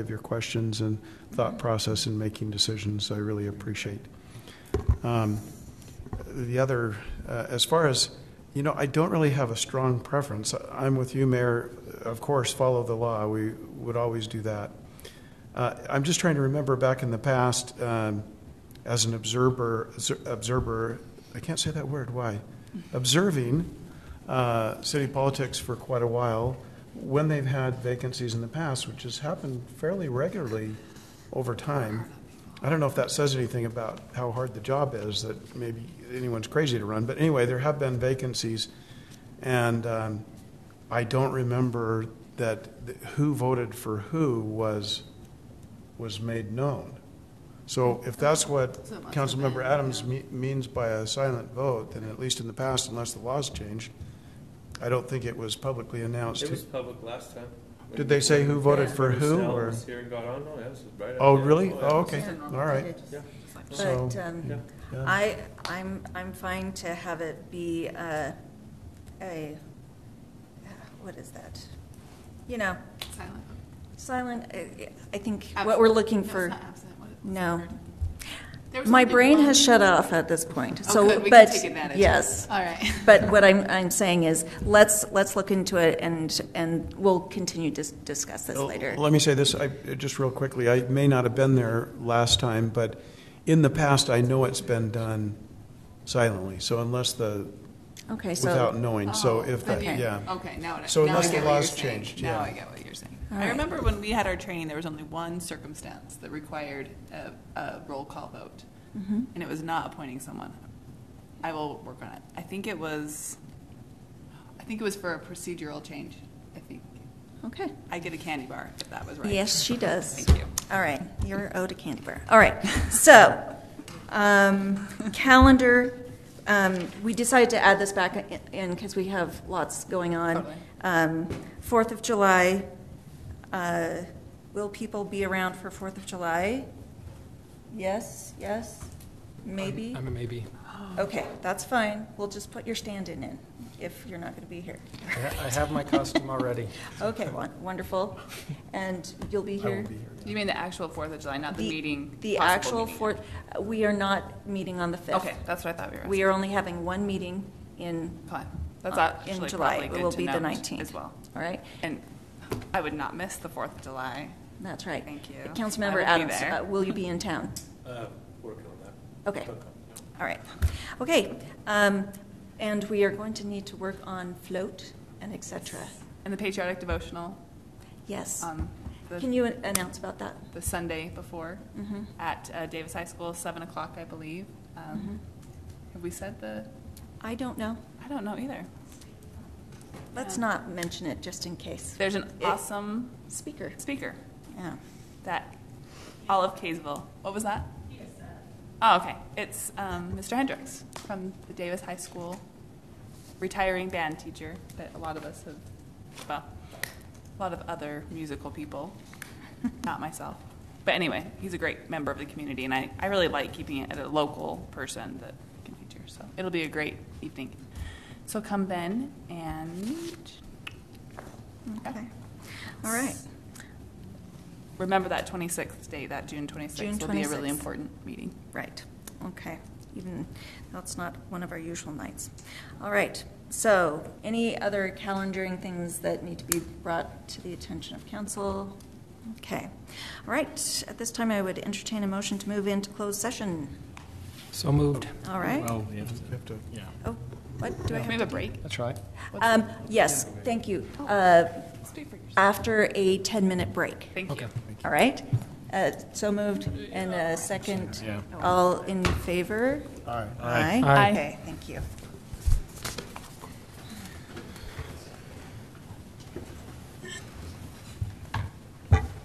of your questions and thought process in making decisions. I really appreciate. Um, The other, uh, as far as, you know, I don't really have a strong preference. I'm with you, Mayor. Of course, follow the law. We would always do that. Uh, I'm just trying to remember back in the past, um, as an observer, observer, I can't say that word, why? Observing uh, city politics for quite a while, when they've had vacancies in the past, which has happened fairly regularly over time. I don't know if that says anything about how hard the job is, that maybe anyone's crazy to run, but anyway, there have been vacancies. And um, I don't remember that th- who voted for who was, was made known. So if that's what So it must have Councilmember been, Adams yeah. me- means by a silent vote, then at least in the past, unless the laws changed, I don't think it was publicly announced. It was public last time. Did they say who voted Yeah. for who? Sal or- was here and got on, no, that was right. Oh, after. really? yeah. Oh, okay, Yeah. all right. Yeah. So, But um, yeah. yeah. I, I'm, I'm fine to have it be a, a, what is that? You know, Silent. silent, I- I think what we're looking Absent. for, No, it's not absent. What- what's no. the word? There was My something brain wrong. has shut off at this point, Oh, so, good. We can but, take advantage of it. yes. All right. But what I'm, I'm saying is, let's, let's look into it and, and we'll continue to s- discuss this Well, later. Oh, Let me say this, I, just real quickly, I may not have been there last time, but in the past, I know it's been done silently, so unless the, Okay, without so, knowing, so Oh, if, the- okay. yeah. Okay, now what I. So now I unless get the what laws you're saying. changed, Now yeah. I get what you're saying. All I right. remember when we had our training, there was only one circumstance that required a, a roll call vote. Mm-hmm. And it was not appointing someone. I will work on it. I think it was, I think it was for a procedural change. I think, okay. I get a candy bar if that was right. Yes, she does. Thank you. All right, you're owed a candy bar. All right, so, um, calendar, um, we decided to add this back in because we have lots going on. Totally. Um, Fourth of July, uh, will people be around for Fourth of July? Yes, yes, maybe? I'm a maybe. Okay, that's fine. We'll just put your stand-in in if you're not going to be here. I ha- I have my costume already. Okay, won- wonderful. And you'll be I here? won't be here. You mean the actual Fourth of July, not the meeting? The possible actual meeting? fourth, we are not meeting on the 5th. Okay, that's what I thought we were. We are only having one meeting in, Fine. That's uh, actually in July. probably It good will to be the note 19th. As well. All right, And I would not miss the Fourth of July. that's right. Thank you. I will Councilmember be Adams, there. uh, will you be in town? Uh, working on that. Okay, all right. Okay, um, and we are going to need to work on float and et cetera. And the patriotic devotional Yes. on Can the, you an- announce about that? the Sunday before Mhm. at uh, Davis High School, seven o'clock, I believe. Um, Mm-hmm. Have we said the, I don't know. I don't know either. Let's not mention it just in case. There's an It- awesome Speaker, speaker yeah. that, all of Kaysville, what was that? Oh, okay. It's um, Mr. Hendricks from the Davis High School, retiring band teacher that a lot of us have, well, a lot of other musical people, not myself. But anyway, he's a great member of the community, and I, I really like keeping it at a local person that can feature. So it'll be a great evening. So come then, and Okay. All right. remember that 26th date, that June 26th June will be a really 26th. important meeting. Right, okay. Even, that's not one of our usual nights. All right, so any other calendaring things that need to be brought to the attention of council? Okay, all right, at this time, I would entertain a motion to move into closed session. So moved. All right? Well, we have to, You have to- yeah. Oh, what, do I Can we have? have a break? That's right. Um, yes, thank you. Uh, Oh, Speak for yourself. after a 10-minute break, Thank Okay. you. all right? Uh, so moved, and a second. Yeah. All in favor? All right. Aye. Aye. Okay, thank you.